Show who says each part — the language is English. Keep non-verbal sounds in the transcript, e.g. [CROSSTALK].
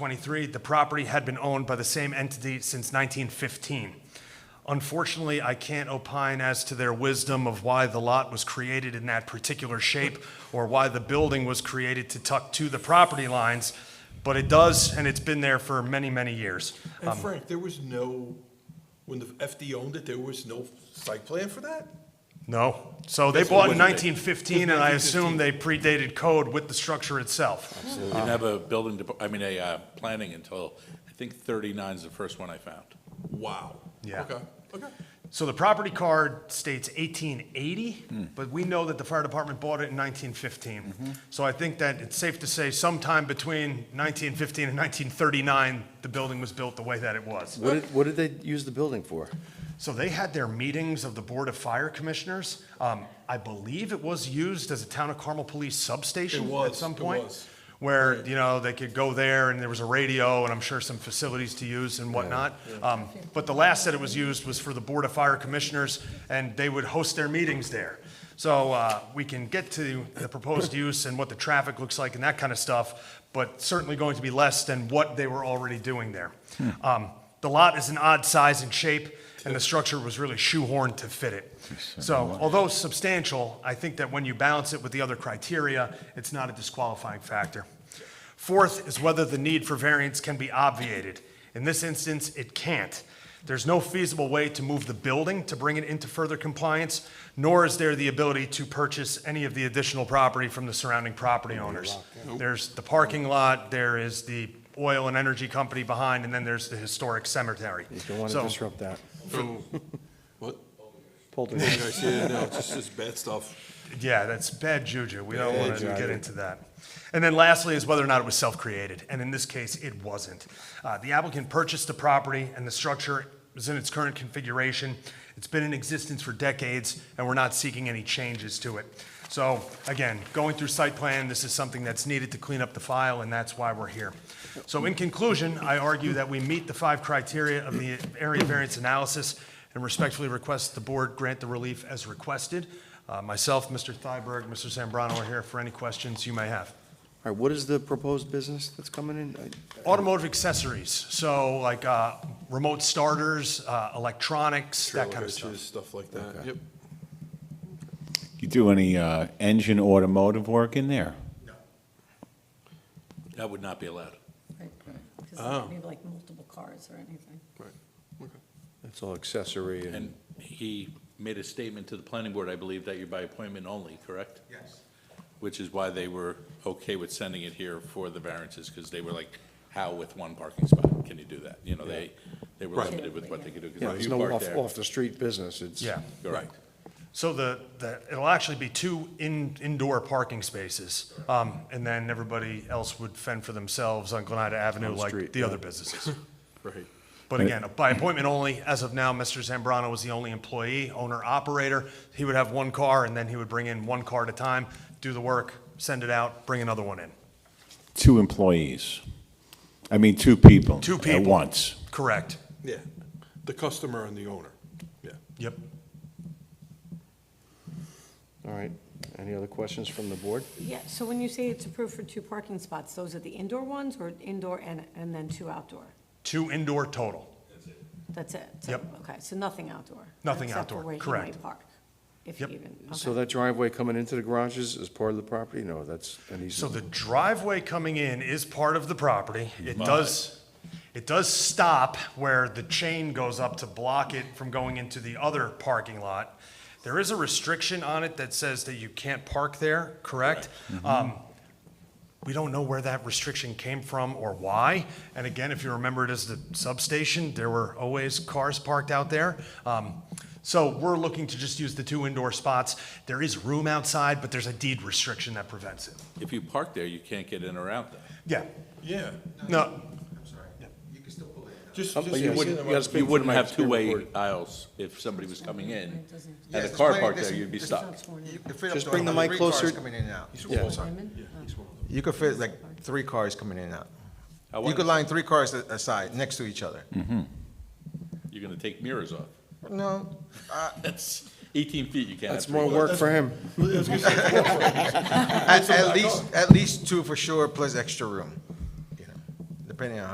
Speaker 1: 1923. The property had been owned by the same entity since 1915. Unfortunately, I can't opine as to their wisdom of why the lot was created in that particular shape or why the building was created to tuck to the property lines, but it does, and it's been there for many, many years.
Speaker 2: And Frank, there was no, when the FD owned it, there was no site plan for that?
Speaker 1: No. So they
Speaker 2: That's
Speaker 1: bought in
Speaker 2: when they-
Speaker 1: 1915, and I assume
Speaker 2: 1915.
Speaker 1: they predated code with the structure itself.
Speaker 3: We
Speaker 4: Um,
Speaker 3: didn't have a building, depa- I mean, a uh, planning until, I think 39 is the first one I found.
Speaker 2: Wow.
Speaker 1: Yeah.
Speaker 2: Okay, okay.
Speaker 1: So the property card states 1880, but we know that the fire department bought it in 1915. So I think that it's safe to say sometime between 1915 and 1939, the building was built the way that it was.
Speaker 4: What did, what did they use the building for?
Speaker 1: So they had their meetings of the Board of Fire Commissioners. Um, I believe it was used as a Town of Carmel Police substation
Speaker 2: It was,
Speaker 1: at some
Speaker 2: it
Speaker 1: point.
Speaker 2: was.
Speaker 1: Where, you know, they could go there and there was a radio and I'm sure some facilities to use and whatnot. Um, but the last that it was used was for the Board of Fire Commissioners and they would host their meetings there. So, uh, we can get to the proposed use and what the traffic looks like and that kind of stuff, but certainly going to be less than what they were already doing there. Um, the lot is an odd size and shape, and the structure was really shoehorned to fit it. So although substantial, I think that when you balance it with the other criteria, it's not a disqualifying factor. Fourth is whether the need for variance can be obviated. In this instance, it can't. There's no feasible way to move the building to bring it into further compliance, nor is there the ability to purchase any of the additional property from the surrounding property owners. There's the parking lot, there is the oil and energy company behind, and then there's the historic cemetery.
Speaker 4: You don't want to
Speaker 1: So-
Speaker 4: disrupt that.
Speaker 2: [LAUGHS] What?
Speaker 4: Poltergeist.
Speaker 2: Yeah, no, it's just, just bad stuff.
Speaker 1: Yeah, that's bad juju. We don't
Speaker 2: Bad
Speaker 1: want to
Speaker 2: juju.
Speaker 1: get into that. And then lastly is whether or not it was self-created, and in this case, it wasn't. Uh, The applicant purchased the property and the structure is in its current configuration. It's been in existence for decades, and we're not seeking any changes to it. So again, going through site plan, this is something that's needed to clean up the file, and that's why we're here. So in conclusion, I argue that we meet the five criteria of the area variance analysis and respectfully request the board grant the relief as requested. Uh, Myself, Mr. Thyberg, Mr. Zambrano are here for any questions you may have.
Speaker 4: All right, what is the proposed business that's coming in? I-
Speaker 1: Automotive accessories, so like uh, remote starters, uh, electronics, that kind of
Speaker 2: Trailer hitches,
Speaker 1: stuff.
Speaker 2: Stuff like that, yep.
Speaker 5: You do any uh, engine automotive work in there?
Speaker 3: That would not be allowed.
Speaker 1: Oh.
Speaker 2: Oh.
Speaker 6: Because maybe like multiple cars or anything.
Speaker 2: Right, okay.
Speaker 4: It's all accessory and,
Speaker 3: And he made a statement to the planning board, I believe, that you're by appointment only, correct?
Speaker 1: Yes.
Speaker 3: Which is why they were okay with sending it here for the variances, because they were like, how with one parking spot can you do that? You know, they, they were limited with what they could do. 'cause
Speaker 4: yeah,
Speaker 3: if
Speaker 4: there's
Speaker 3: you
Speaker 4: no
Speaker 3: park
Speaker 4: off,
Speaker 3: there-
Speaker 4: off the street business. It's.
Speaker 1: Yeah.
Speaker 3: Correct.
Speaker 1: So the, the, it'll actually be two in, indoor parking spaces, um, and then everybody else would fend for themselves on Glenada Avenue
Speaker 4: On the
Speaker 1: like
Speaker 4: street,
Speaker 1: the
Speaker 4: yeah.
Speaker 1: other businesses.
Speaker 2: Right.
Speaker 1: But again, by appointment only, as of now, Mr. Zambrano was the only employee, owner, operator. He would have one car, and then he would bring in one car at a time, do the work, send it out, bring another one in.
Speaker 5: Two employees. I mean, two people.
Speaker 1: Two
Speaker 5: At
Speaker 1: people.
Speaker 5: once.
Speaker 1: Correct.
Speaker 2: Yeah, the customer and the owner, yeah.
Speaker 1: Yep.
Speaker 4: All right. Any other questions from the board?
Speaker 6: Yeah, so when you say it's approved for two parking spots, those are the indoor ones or indoor and, and then two outdoor?
Speaker 1: Two indoor total.
Speaker 6: That's it? So-
Speaker 1: Yep.
Speaker 6: Okay, so nothing outdoor?
Speaker 1: Nothing
Speaker 6: except for
Speaker 1: outdoor,
Speaker 6: where he
Speaker 1: correct.
Speaker 6: might park, if he
Speaker 1: Yep.
Speaker 6: even,
Speaker 4: So
Speaker 6: okay.
Speaker 4: that driveway coming into the garages is part of the property? No, that's an
Speaker 1: So
Speaker 4: easement.
Speaker 1: the driveway coming in is part of the property. It does, it does stop where the chain goes up to block it from going into the other parking lot. There is a restriction on it that says that you can't park there, correct? Um, We don't know where that restriction came from or why. And again, if you remember it as the substation, there were always cars parked out there. Um, So we're looking to just use the two indoor spots. There is room outside, but there's a deed restriction that prevents it.
Speaker 3: If you park there, you can't get in or out there.
Speaker 1: Yeah,
Speaker 2: Yeah,
Speaker 1: no,
Speaker 2: just,
Speaker 4: Um,
Speaker 2: just.
Speaker 4: but you wouldn't- you gotta speak
Speaker 3: You
Speaker 4: for the
Speaker 3: wouldn't
Speaker 4: mic,
Speaker 3: have
Speaker 4: it's being
Speaker 3: two-way
Speaker 4: recorded.
Speaker 3: aisles if somebody was coming in.
Speaker 6: Yeah,
Speaker 3: Had a
Speaker 7: it's
Speaker 3: car
Speaker 7: plenty-
Speaker 3: parked
Speaker 7: there's-
Speaker 3: there, you'd be
Speaker 7: there's-
Speaker 3: stuck.
Speaker 7: you could fit up
Speaker 4: Just
Speaker 7: to
Speaker 4: bring the
Speaker 7: like
Speaker 4: mic
Speaker 7: three cars
Speaker 4: closer.
Speaker 7: Coming in and out.
Speaker 4: Yeah.
Speaker 2: [LAUGHS]
Speaker 7: You could fit like three cars coming in and
Speaker 3: I
Speaker 7: out. You
Speaker 3: wonder- Hmm.
Speaker 7: could line three cars a- aside, next to each other.
Speaker 3: You're gonna take mirrors off.
Speaker 7: No,
Speaker 3: That's 18 feet, you can't have
Speaker 4: That's
Speaker 3: three
Speaker 4: more
Speaker 3: cars.
Speaker 4: work for him.
Speaker 7: at, at least, at least two for sure, plus extra room. You know, depending on how